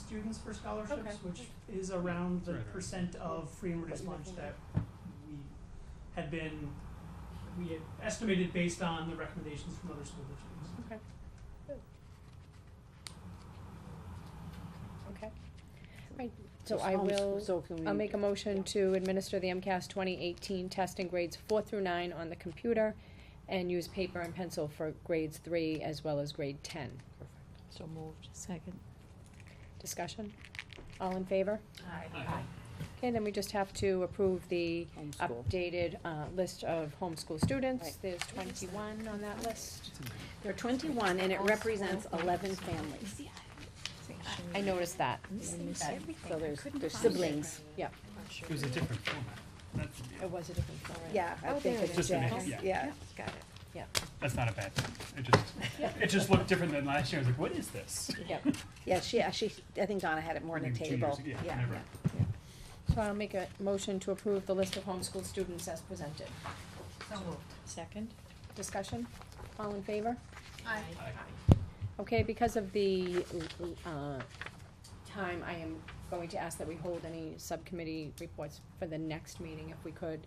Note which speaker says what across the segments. Speaker 1: students for scholarships,
Speaker 2: Okay.
Speaker 1: which is around the
Speaker 3: Right, right.
Speaker 1: percent of free and reduced lunch that we had been, we had estimated based on the recommendations from other school districts.
Speaker 2: Okay. Good. Okay. Right, so I will, I'll make a motion to administer the MCAS twenty eighteen test in grades four through nine on the computer and use paper and pencil for grades three as well as grade ten.
Speaker 4: So moved.
Speaker 5: Second.
Speaker 2: Discussion? All in favor?
Speaker 3: Aye.
Speaker 2: Okay, then we just have to approve the
Speaker 4: Homeschool.
Speaker 2: updated, uh, list of homeschool students.
Speaker 4: Right.
Speaker 2: There's twenty-one on that list.
Speaker 4: There are twenty-one, and it represents eleven families.
Speaker 2: I noticed that.
Speaker 4: That- So there's, there's
Speaker 5: find it.
Speaker 4: siblings, yeah,
Speaker 3: It was a different format. That's,
Speaker 4: Oh.
Speaker 2: It was a different format.
Speaker 4: yeah, I
Speaker 5: Oh,
Speaker 4: think
Speaker 5: there it
Speaker 4: it's
Speaker 3: is. Just an
Speaker 4: Jack's,
Speaker 3: ex-
Speaker 4: yeah.
Speaker 5: Got it.
Speaker 3: that's not a bad thing. It just, it just looked different than last year. I was like, what is this?
Speaker 2: Yep.
Speaker 4: Yeah, she, she, I think Donna had it more on the
Speaker 3: Maybe two
Speaker 4: table,
Speaker 3: years
Speaker 4: yeah,
Speaker 3: ago, yeah,
Speaker 4: yeah.
Speaker 3: never.
Speaker 2: So I'll make a motion to approve the list of homeschool students as presented.
Speaker 5: Second?
Speaker 2: Discussion? All in favor?
Speaker 5: Aye.
Speaker 3: Aye.
Speaker 2: Okay, because of the, uh, time, I am going to ask that we hold any subcommittee reports for the next meeting if we could.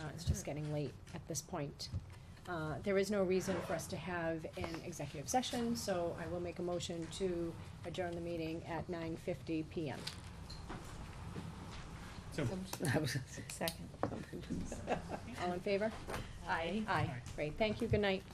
Speaker 2: Uh, it's just getting late at this point. Uh, there is no reason for us to have an executive session, so I will make a motion to adjourn the meeting at nine fifty PM.
Speaker 3: So,
Speaker 5: Second.
Speaker 2: All in favor?
Speaker 5: Aye.
Speaker 2: Aye, great, thank you, good night.